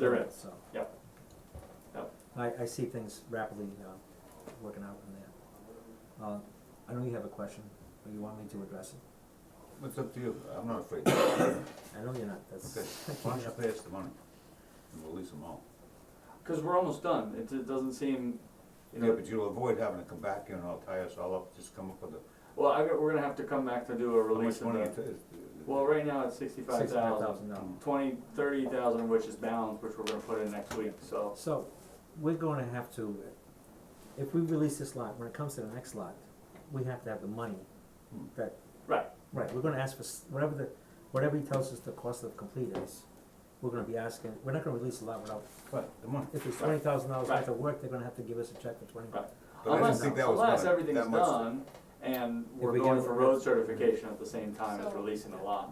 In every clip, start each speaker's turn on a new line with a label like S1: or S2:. S1: They're in.
S2: So.
S1: Yep. Yep.
S2: I, I see things rapidly, uh, working out in there. Uh, I know you have a question, but you want me to address it?
S3: It's up to you, I'm not afraid. Okay,
S2: I know you're not, that's.
S3: why don't you pay us the money and release them all?
S1: Because we're almost done. It, it doesn't seem, you know.
S3: Yeah, but you'll avoid having to come back here and all tie us all up, just come up with a,
S1: Well, I, we're gonna have to come back to do a
S3: how
S1: release
S3: much
S1: of
S3: money
S1: the-
S3: it is.
S1: Well, right now it's sixty-five thousand,
S2: thousand dollars.
S1: twenty, thirty thousand, which is bound, which we're gonna put in next week, so.
S2: So, we're gonna have to, if we release this lot, when it comes to the next lot, we have to have the money
S3: Hmm.
S2: that.
S1: Right.
S2: Right, we're gonna ask for, s- whatever the, whatever he tells us the cost of complete is, we're gonna be asking, we're not gonna release a lot without,
S3: But, the money,
S2: if it's
S1: Right.
S2: twenty thousand dollars worth
S1: Right.
S2: of work, they're gonna have to give us a check for twenty.
S1: Right.
S3: but I didn't
S1: Unless,
S3: think that was
S1: unless
S3: gonna-
S1: everything's
S3: that much-
S1: done and we're
S2: we
S1: going
S2: give-
S1: for road certification at the same time as
S4: So-
S1: releasing the lot.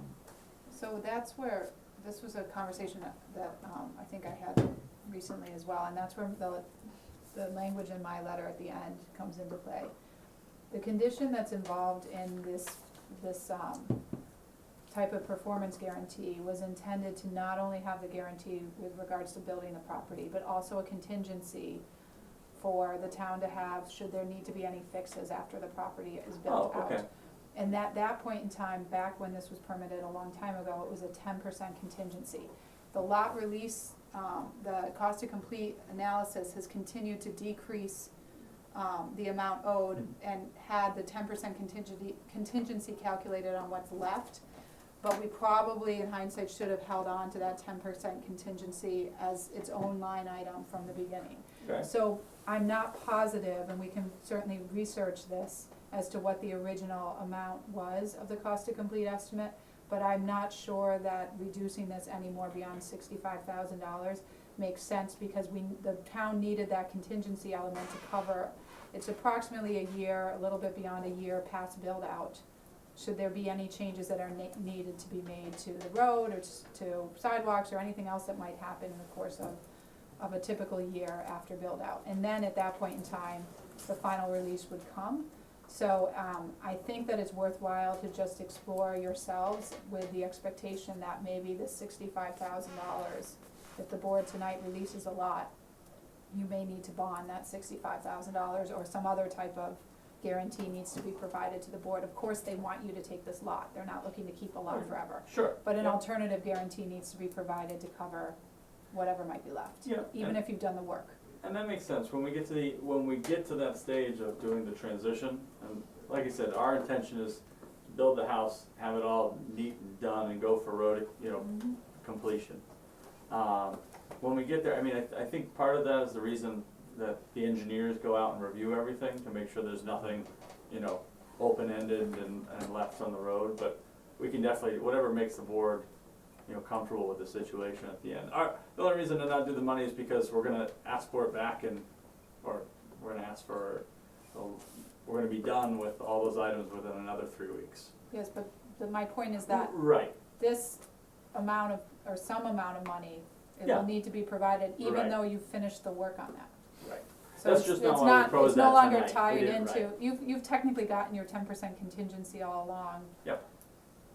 S4: So that's where, this was a conversation that, that, um, I think I had recently as well, and that's where the, the language in my letter at the end comes into play. The condition that's involved in this, this, um, type of performance guarantee was intended to not only have the guarantee with regards to building the property, but also a contingency for the town to have, should there need to be any fixes after the property is built out.
S1: Oh, okay.
S4: And that, that point in time, back when this was permitted a long time ago, it was a ten percent contingency. The lot release, um, the cost to complete analysis has continued to decrease, um, the amount owed and had the ten percent contingency, contingency calculated on what's left. But we probably in hindsight should have held on to that ten percent contingency as its own line item from the beginning.
S1: Okay.
S4: So I'm not positive, and we can certainly research this, as to what the original amount was of the cost to complete estimate, but I'm not sure that reducing this any more beyond sixty-five thousand dollars makes sense, because we, the town needed that contingency element to cover. It's approximately a year, a little bit beyond a year past build-out. Should there be any changes that are ne- needed to be made to the road, or s- to sidewalks, or anything else that might happen in the course of of a typical year after build out. And then at that point in time, the final release would come. So um, I think that it's worthwhile to just explore yourselves with the expectation that maybe the sixty-five thousand dollars, if the board tonight releases a lot, you may need to bond that sixty-five thousand dollars or some other type of guarantee needs to be provided to the board. Of course, they want you to take this lot. They're not looking to keep a lot forever.
S1: Sure.
S4: But an
S1: Yeah.
S4: alternative guarantee needs to be provided to cover whatever might be left.
S1: Yeah,
S4: Even
S1: and-
S4: if you've done the work.
S1: And that makes sense, when we get to the, when we get to that stage of doing the transition, and like I said, our intention is to build the house, have it all neat and done and go for road, you know,
S4: Mm-hmm.
S1: completion. Um, when we get there, I mean, I, I think part of that is the reason that the engineers go out and review everything to make sure there's nothing, you know, open-ended and, and left on the road, but we can definitely, whatever makes the board, you know, comfortable with the situation at the end. Our, the only reason to not do the money is because we're gonna ask for it back and, or we're gonna ask for, oh, we're gonna be done with all those items within another three weeks.
S4: Yes, but the, my point is that
S1: Right,
S4: this amount of, or some amount of money, it
S1: Yeah.
S4: will need to be provided,
S1: Right.
S4: even though you've finished the work on that.
S1: right.
S4: So
S1: That's
S4: it's,
S1: just
S4: it's
S1: not why we
S4: not,
S1: proposed
S4: it's no
S1: that
S4: longer
S1: tonight. We
S4: tied
S1: did it
S4: into, you've, you've technically gotten your ten percent contingency all along.
S1: Yep.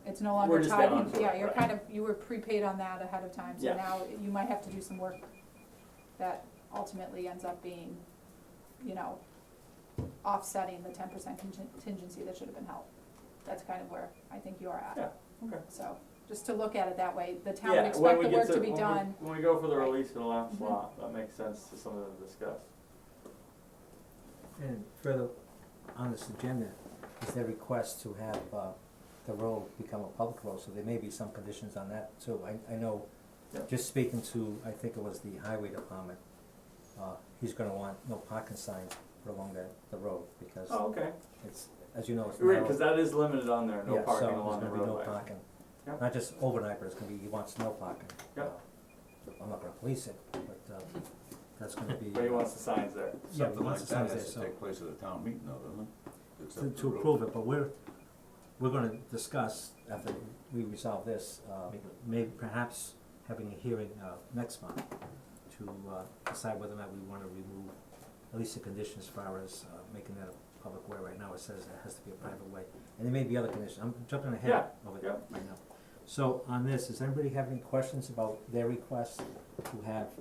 S4: It's no
S1: We're
S4: longer
S1: just
S4: tied
S1: down
S4: in,
S1: to
S4: yeah,
S1: it,
S4: you're
S1: right.
S4: kind of, you were prepaid on that ahead of time,
S1: Yeah.
S4: so now you might have to do some work that ultimately ends up being, you know, offsetting the ten percent contingency that should have been held. That's kind of where I think you are at.
S1: Yeah, okay.
S4: So, just to look at it that way, the town would
S1: Yeah,
S4: expect
S1: when
S4: the
S1: we get
S4: work to be
S1: when we-
S4: done,
S1: When we go for the
S4: Right.
S1: release of the last
S4: Mhm.
S1: lot, that makes sense to something to discuss.
S2: And further on this agenda is their request to have, uh, the road become a public road, so there may be some conditions on that too. I, I know,
S1: Yeah.
S2: just speaking to, I think it was the highway department, uh, he's gonna want no parking signs put along the, the road, because
S1: Oh, okay.
S2: it's, as you know, it's narrow.
S1: Right, cause that is limited on there, no
S2: Yeah, so
S1: parking
S2: there's
S1: along the
S2: gonna be no
S1: roadway.
S2: parking,
S1: Yep.
S2: not just overnight, but it's gonna be, he wants no parking.
S1: Yep.
S2: Uh, I'm not gonna police it, but, uh, that's gonna be.
S1: But he wants the signs there.
S2: Yeah,
S3: something
S2: once
S3: like
S2: the
S3: that
S2: signs there,
S3: has to
S2: so-
S3: take place at a town meeting though, doesn't it?
S2: to,
S3: Except
S2: to
S3: for-
S2: approve it, but we're, we're gonna discuss after we resolve this, uh, maybe perhaps having a hearing, uh, next month to, uh, decide whether or not we wanna remove at least the condition as far as, uh, making that a public way. Right now, it says it has to be a private way, and there may be other conditions, I'm jumping ahead
S1: Yeah,
S2: of it
S1: yeah.
S2: right now. So on this, does anybody have any questions about their request to have